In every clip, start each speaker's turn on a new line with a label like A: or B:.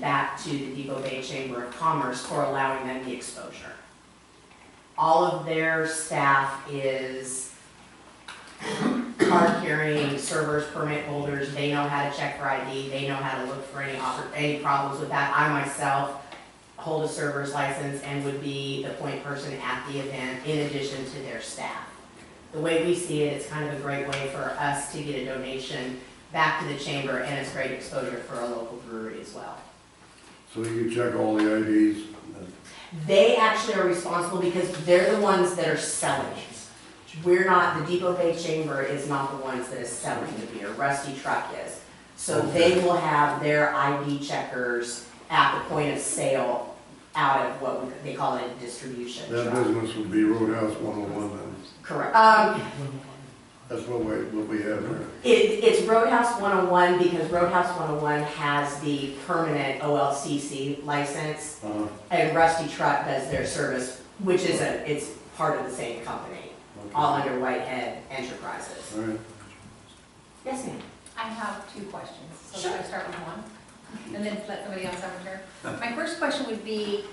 A: back to the Depot Bay Chamber of Commerce for allowing them the exposure. All of their staff is card carrying, servers, permit holders, they know how to check for ID, they know how to look for any oppor- any problems with that. I myself hold a server's license and would be the point person at the event in addition to their staff. The way we see it, it's kind of a great way for us to get a donation back to the chamber and it's great exposure for a local brewery as well.
B: So you check all the IDs, and
A: They actually are responsible because they're the ones that are selling it. We're not, the Depot Bay Chamber is not the ones that is selling the beer, Rusty Truck is. So they will have their ID checkers at the point of sale out of what we- they call it a distribution
B: that
A: truck.
B: business would be Roadhouse 101 then.
A: Correct. Um,
B: That's what we, what we have there.
A: It, it's Roadhouse 101 because Roadhouse 101 has the permanent OLCC license
B: Uh,
A: and Rusty Truck does their service, which is a, it's part of the same company,
B: okay.
A: all under Whitehead Enterprises.
B: All right.
A: Yes, ma'am.
C: I have two questions, so
A: Sure.
C: should I start with one? And then let somebody else have a turn? My first question would be,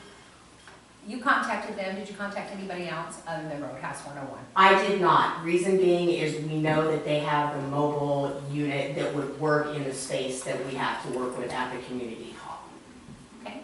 C: you contacted them, did you contact anybody else other than Roadhouse 101?
A: I did not. Reason being is we know that they have the mobile unit that would work in the space that we have to work with at the community hall.
C: Okay?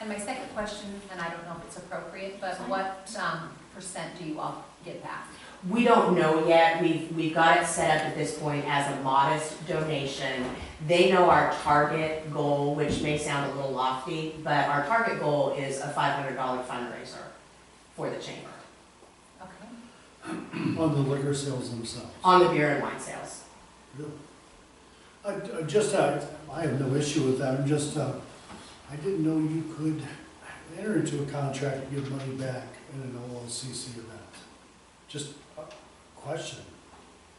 C: And my second question, and I don't know if it's appropriate, but what um, percent do you all get back?
A: We don't know yet, we've, we've got it set up at this point as a modest donation. They know our target goal, which may sound a little lofty, but our target goal is a five hundred dollar fundraiser for the chamber,
C: Okay?
D: On the liquor sales themselves.
A: on the beer and wine sales.
D: Really? I, I just, I, I have no issue with that, I'm just, uh, I didn't know you could enter into a contract and give money back in an OLCC event. Just a question,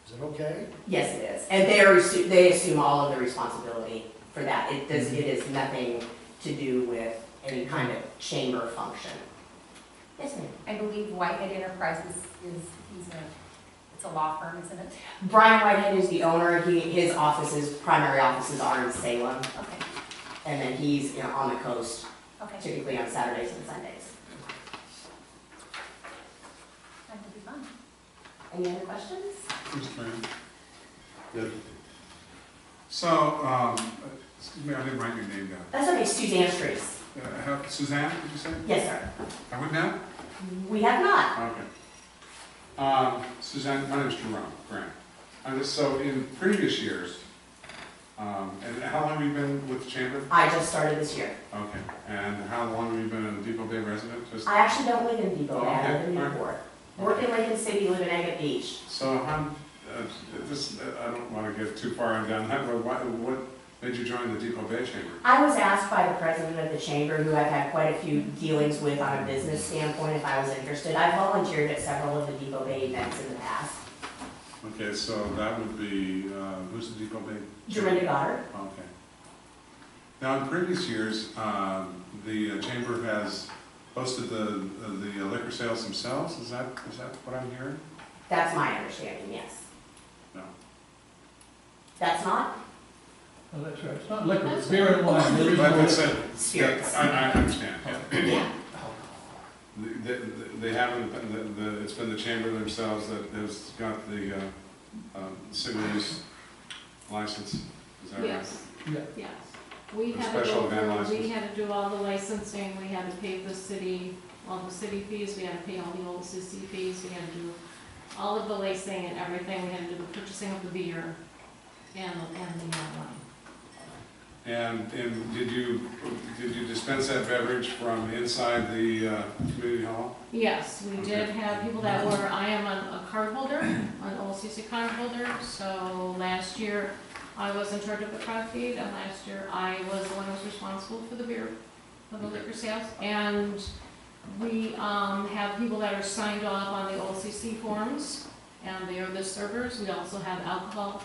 D: is it okay?
A: Yes, it is, and they are, assu- they assume all of the responsibility for that. It does, it is nothing to do with any kind of chamber function. Yes, ma'am.
C: I believe Whitehead Enterprises is, he's a, it's a law firm, isn't it?
A: Brian Whitehead is the owner, he, his offices, primary offices are in Salem.
C: Okay,
A: And then he's, you know, on the coast,
C: okay.
A: typically on Saturdays and Sundays.
C: That would be fun.
A: Any other questions?
E: Mr. Mayor.
B: Yes.
E: So, um, excuse me, I didn't write your name down.
A: That's okay, Suzanne Streets.
E: Uh, how- Suzanne, did you say?
A: Yes, sir.
E: I went down?
A: We have not.
E: Okay. Um, Suzanne, my name's Jerome Grant. And so in previous years, um, and how long have you been with the chamber?
A: I just started this year.
E: Okay. And how long have you been a Depot Bay resident? Just,
A: I actually don't live in Depot, I live in
E: Okay.
A: Newport. Work in Lincoln City, live in Agate Beach.
E: so I'm, uh, this, uh, I don't wanna get too far down that road. Why, what made you join the Depot Bay Chamber?
A: I was asked by the president of the chamber, who I've had quite a few dealings with on a business standpoint, if I was interested. I volunteered at several of the Depot Bay events in the past.
E: Okay, so that would be, uh, who's the Depot Bay?
A: Jorinda Goddard.
E: Okay. Now, in previous years, um, the uh, chamber has hosted the, uh, the liquor sales themselves, is that, is that what I'm hearing?
A: That's my understanding, yes.
E: No.
A: That's not
F: Well, Oh, that's right, it's not liquor, it's beer and wine. There is
E: But
F: no-
E: that's it, yeah,
A: spirits.
E: I, I understand, yeah.
A: Yeah.
E: They, they- they haven't, the, the, it's been the chamber themselves that has got the, uh, um, single use license, is that right?
G: Yes,
F: Yeah.
G: yes. We
E: For
G: had to
E: special
G: go
E: event
G: through, we
E: license.
G: had to do all the licensing, we had to pay the city, all the city fees, we had to pay all the old CC fees, we had to do all of the licensing and everything, we had to do the purchasing of the beer and, and the uh, wine.
E: And, and did you, did you dispense that beverage from inside the, uh, community hall?
G: Yes, we did have people that were, I am a a card holder, an old CC card holder, so last year I was in charge of the crowd feed, and last year I was the one who was responsible for the beer, for the liquor sales. And we um, have people that are signed off on the OCC forms, and they are the servers. We also have alcohol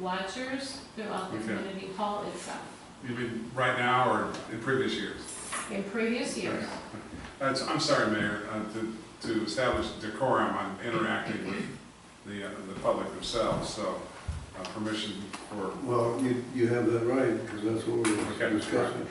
G: watchers throughout the
E: Okay.
G: community hall itself
E: You mean right now or in previous years?
G: in previous years.
E: Uh, so- I'm sorry, Mayor, uh, to- to establish decorum, I'm interacting with the, uh, the public themselves, so uh, permission for
B: Well, you, you have that right, because that's what we
E: Okay.
B: were discussing.